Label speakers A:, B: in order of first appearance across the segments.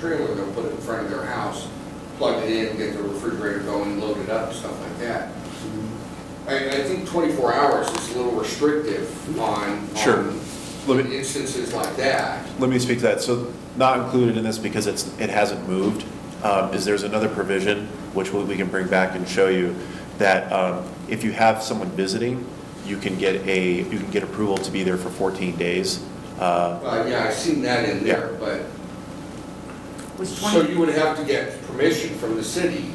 A: trailer, they'll put it in front of their house, plug it in, get the refrigerator going, load it up, stuff like that.
B: Mm-hmm.
A: I, I think twenty-four hours is a little restrictive on,
B: Sure.
A: on
B: Let me-
A: instances like that.
B: Let me speak to that. So not included in this because it's, it hasn't moved, um, is there's another provision, which we we can bring back and show you, that um, if you have someone visiting, you can get a, you can get approval to be there for 14 days. Uh,
A: But yeah, I've seen that in there, but,
C: Was
A: so
C: twenty,
A: you would have to get permission from the city,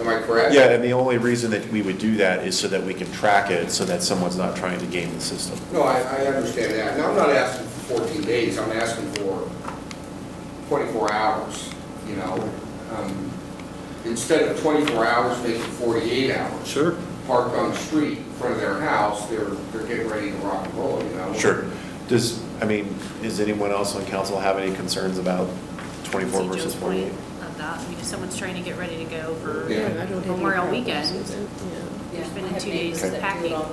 A: am I correct?
B: Yeah, and the only reason that we would do that is so that we can track it, so that someone's not trying to game the system.
A: No, I, I understand that. Now, I'm not asking for fourteen days, I'm asking for twenty-four hours, you know? Um, Instead of twenty-four hours, make it forty-eight hours.
B: Sure.
A: Parked on the street in front of their house, they're, they're getting ready to rock and roll, you know?
B: Sure. Does, I mean, does anyone else on council have any concerns about 24
D: See Joe's
B: versus
D: point
B: 48?
D: Of uh, that, I mean, if someone's trying to get ready to go for
A: Yeah.
D: Memorial Weekend, you're spending two days packing.
E: And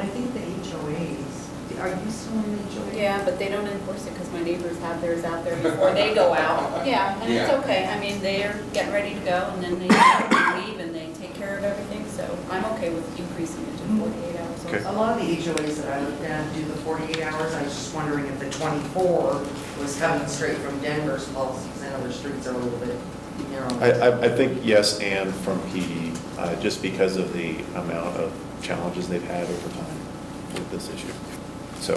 E: I think the HOAs, are you still in HOA?
F: Yeah, but they don't enforce it because my neighbors have theirs out there before they go out. Yeah, and it's
A: Yeah.
F: okay. I mean, they're getting ready to go and then they leave and they take care of everything. So I'm okay with increasing it to 48 hours.
B: Okay.
E: A lot of the HOAs that I looked at do the 48 hours. I was just wondering if the 24 was coming straight from Denver's policies. I know their streets are a little bit
B: I,
E: narrow.
B: I, I think yes, and from PD, uh, just because of the amount of challenges they've had over time with this issue. So,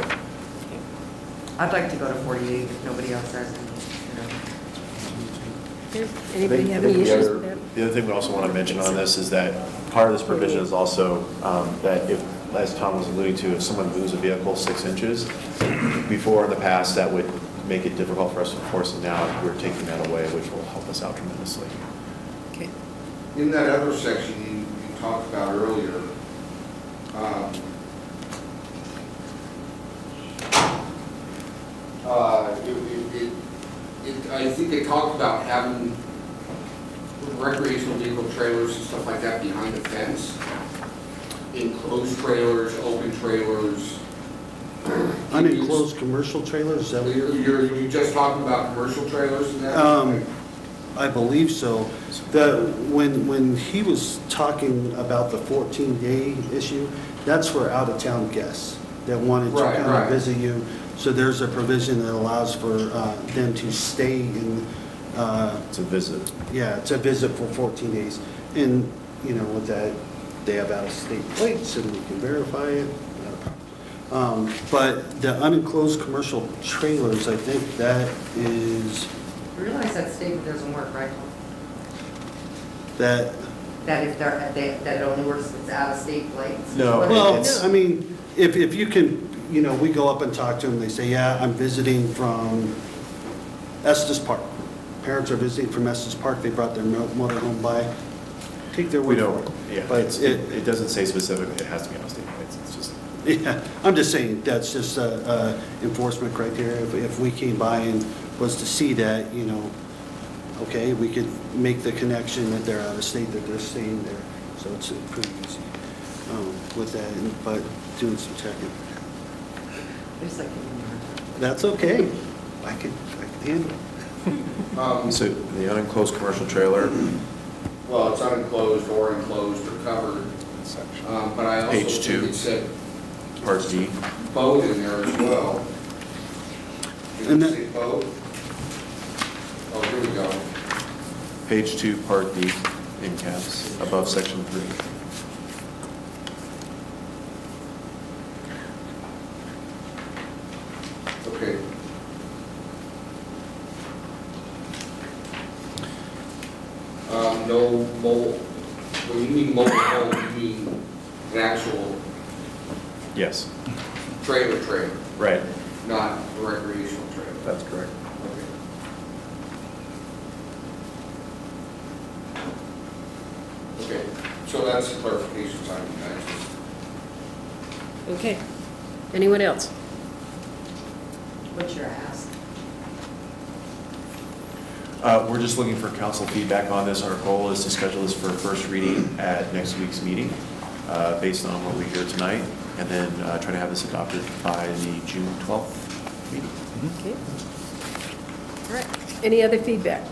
E: I'd like to go to 48 if nobody else has, any, you know.
C: anybody have
B: I think
C: any
B: the
C: issues
B: other-
C: with that?
B: The other thing we also want to mention on this is that part of this provision is also um, that if, as Tom was alluding to, if someone moves a vehicle six inches, before in the past, that would make it difficult for us to enforce, and now we're taking that away, which will help us out tremendously.
C: Okay.
A: In that other section you, you talked about earlier, um, uh, it, it- it, it, I think they talked about having recreational vehicle trailers and stuff like that behind the fence. Enclosed trailers, open trailers.
G: Unenclosed commercial trailers, is that what
A: You're,
G: you're?
A: you're you just talking about commercial trailers and that?
G: Um, I believe so. The, when, when he was talking about the 14-day issue, that's for out-of-town guests that wanted to
A: Right,
G: come
A: right.
G: and visit you. So there's a provision that allows for uh, them to stay in, uh,
B: It's a visit.
G: yeah, to visit for 14 days. And, you know, with that, they have out-of-state plates and we can verify it. not a problem. Um, But the unenclosed commercial trailers, I think that is,
E: You Realize that statement doesn't work, right?
G: that,
E: That if they're, that that it only works if it's out of state plates?
B: No.
E: What if
G: well,
E: it's-
G: I mean, if, if you can, you know, we go up and talk to them, they say, yeah, I'm visiting from Estes Park. Parents are visiting from Estes Park, they brought their mo- motorhome by, take their
B: We
G: word for
B: don't,
G: it.
B: yeah,
G: But
B: it's- it, it doesn't say specifically it has to be on state plates, it's just,
G: Yeah, I'm just saying, that's just an enforcement criteria. If- If we came by and was to see that, you know, okay, we could make the connection that they're out of state, that they're staying there. So it's uh, pretty easy um, with that, and- but doing some checking.
E: I just like giving you a hard time.
G: That's okay. I could, I could handle it.
A: Um,
B: so the unenclosed commercial trailer,
A: Well, it's unenclosed or enclosed or covered, um, but I also
B: Page
A: think
B: two.
A: it said
B: part D.
A: boat in there as well. Did
G: And
A: it
G: that-
A: say boat? Oh, here we go.
B: Page two, part D, in caps, above section three.
A: Okay. Um, No mobile, when you mean mobile home, you mean an actual
B: Yes,
A: trailer trailer,
B: right.
A: not a recreational trailer.
B: That's correct.
A: Okay. Okay, so that's the clarification time, guys.
C: Okay. Anyone else?
E: What's your ask?
B: Uh, We're just looking for council feedback on this. Our goal is to schedule this for first reading at next week's meeting, uh, based on what we hear tonight, and then uh, try to have this adopted by the June 12th meeting.
C: Okay. All right. Any other feedback?